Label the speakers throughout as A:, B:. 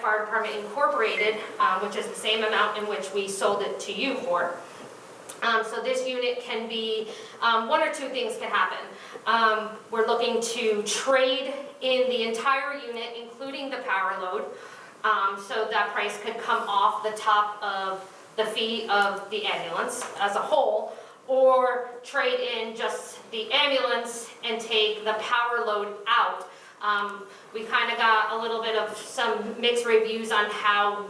A: Fire Department Incorporated, um, which is the same amount in which we sold it to you for. Um, So this unit can be, um, one or two things can happen. Um, We're looking to trade in the entire unit, including the power load. Um, So that price could come off the top of the fee of the ambulance as a whole, or trade in just the ambulance and take the power load out. Um, We kind of got a little bit of some mixed reviews on how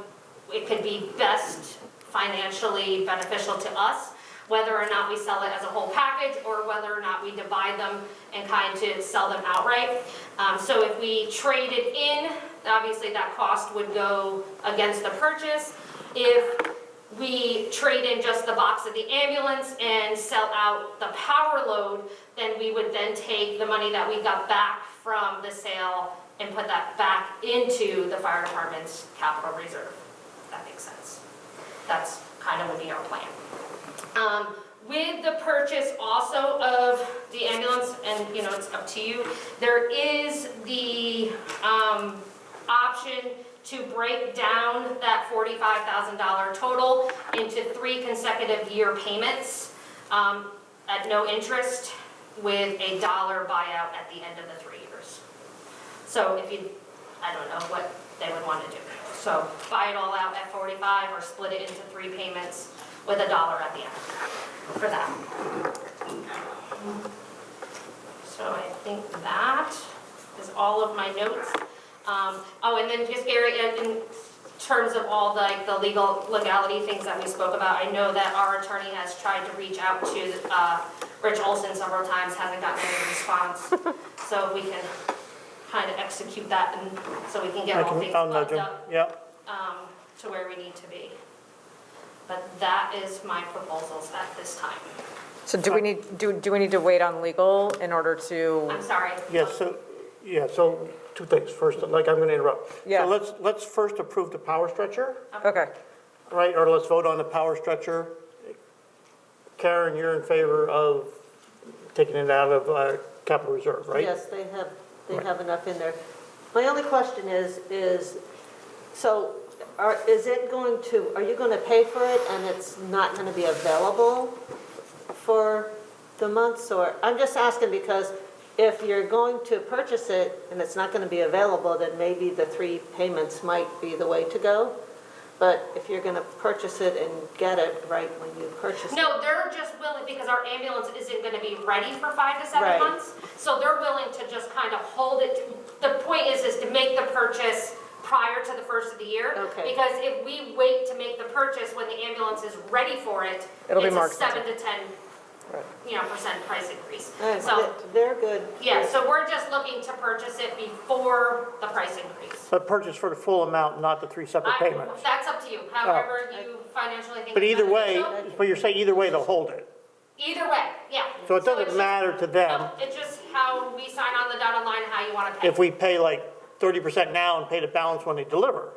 A: it could be best financially beneficial to us, whether or not we sell it as a whole package or whether or not we divide them and kind to sell them outright. Um, so if we traded in, obviously that cost would go against the purchase. If we trade in just the box of the ambulance and sell out the power load, then we would then take the money that we got back from the sale and put that back into the fire department's capital reserve. If that makes sense. That's kind of would be our plan. Um, With the purchase also of the ambulance, and you know, it's up to you, there is the um, option to break down that $45,000 total into three consecutive year payments um, at no interest with a dollar buyout at the end of the three years. So if you, I don't know what they would want to do. So buy it all out at 45 or split it into three payments with a dollar at the end for that. So I think that is all of my notes. Um, Oh, and then just Gary, in in terms of all the, like, the legal legality things that we spoke about, I know that our attorney has tried to reach out to uh, Rich Olson several times, hasn't gotten any response. So we can kind of execute that and so we can get
B: I
A: all
B: can-
A: things
B: I'll nudge
A: lined
B: him.
A: up
B: Yeah,
A: um, to where we need to be. But that is my proposals at this time.
C: So do we need, do, do we need to wait on legal in order to,
A: I'm sorry.
B: yes, so, yeah, so two things. First, like, I'm going to interrupt.
C: Yeah.
B: So let's, let's first approve the power stretcher,
C: okay,
B: right? Or let's vote on the power stretcher. Karen, you're in favor of taking it out of uh, capital reserve, right?
D: Yes, they have, they have enough in there. My only question is, is, so are, is it going to, are you going to pay for it and it's not going to be available for the months or, I'm just asking because if you're going to purchase it and it's not going to be available, then maybe the three payments might be the way to go. But if you're going to purchase it and get it right when you purchase it.
A: No, they're just willing, because our ambulance isn't gonna be ready for five to seven
D: Right.
A: months. So they're willing to just kind of hold it. The point is, is to make the purchase prior to the first of the year.
D: Okay.
A: Because if we wait to make the purchase when the ambulance is ready for it,
C: It'll be
A: it's
C: more
A: a
C: expensive.
A: seven to ten,
C: Right.
A: you know, percent price increase.
D: All right,
A: So,
D: They're good.
A: yeah, so we're just looking to purchase it before the price increase.
B: But purchase for the full amount, not the three separate
A: I-
B: payments.
A: That's up to you, however you financially think.
B: But
A: it's
B: either way,
A: beneficial.
B: but you're saying either way, they'll hold it.
A: Either way, yeah.
B: So it
A: it's
B: doesn't
A: just-
B: matter to them
A: no, It's just how we sign on the dotted line, how you want to pay.
B: if we pay like 30% now and pay the balance when they deliver.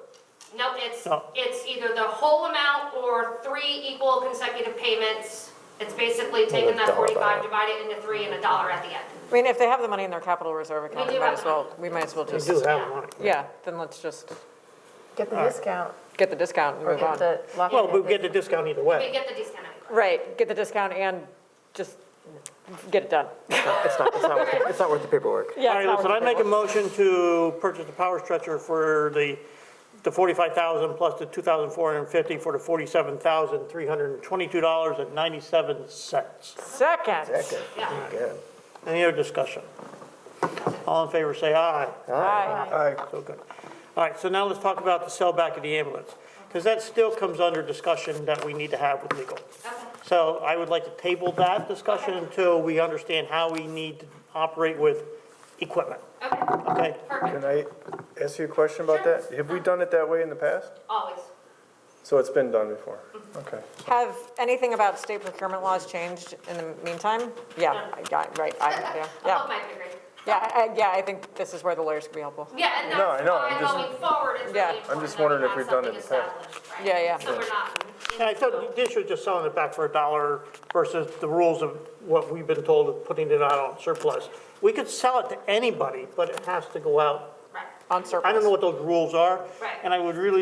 A: No, it's,
E: Oh.
B: No.
A: it's either the whole amount or three equal consecutive payments. It's basically taking that
F: dollar
A: 45,
F: amount.
A: divide it into three and a dollar at the end.
C: I mean, if they have the money in their capital reserve account,
A: do
C: we might
A: have
C: as
A: the money.
C: well, we might as well
B: They
C: just,
B: do have money.
C: yeah, then let's just
F: Get the discount
C: get the discount and
F: or
C: move
F: get
C: on.
F: the lock.
B: Well, we get the discount either way.
A: We get the discount anyway.
C: Right, get the discount and just get it done.
F: It's not, it's not, worth it. it's not worth the paperwork.
B: All
C: Yeah, it's
B: right,
C: not
B: listen,
C: worth
B: I
C: the
B: make a
C: paperwork.
B: motion to purchase the power stretcher for the, the 45,000 plus the 2,450 for the 47,322 dollars and 97 cents.
C: Second.
F: Second.
A: Yeah.
F: Good.
B: Any other discussion? All in favor, say aye.
C: Aye.
F: Aye.
B: So good. All right, so now let's talk about the sell back of the ambulance, because that still comes under discussion that we need to have with legal.
A: Okay.
B: So I would like to table that discussion until we understand how we need to operate with equipment,
A: Okay,
B: okay?
A: perfect,
E: Can I ask you a question about
A: Sure.
E: that? Have we done it that way in the past?
A: always.
E: So it's been done before? Okay.
C: Have anything about state procurement laws changed in the meantime? Yeah, I got, right, I, yeah,
A: Above
C: yeah.
A: my pay grade.
C: Yeah, I- I- yeah, I think this is where the lawyers could be helpful.
A: Yeah, and
E: No, I
A: that's
E: know, I'm
A: why
E: just-
A: going forward, it's
C: Yeah.
A: really
E: I'm just
A: important
E: wondering
A: that
E: if
A: we
E: we've
A: have
E: done it in
A: something
E: the past.
A: established, right?
C: Yeah, yeah.
A: So we're not.
B: And I thought this was just selling it back for a dollar versus the rules of what we've been told of putting it out on surplus. We could sell it to anybody, but it has to go out
A: Right.
G: on surplus.
B: I don't know what those rules are.
C: Right.
B: And I would really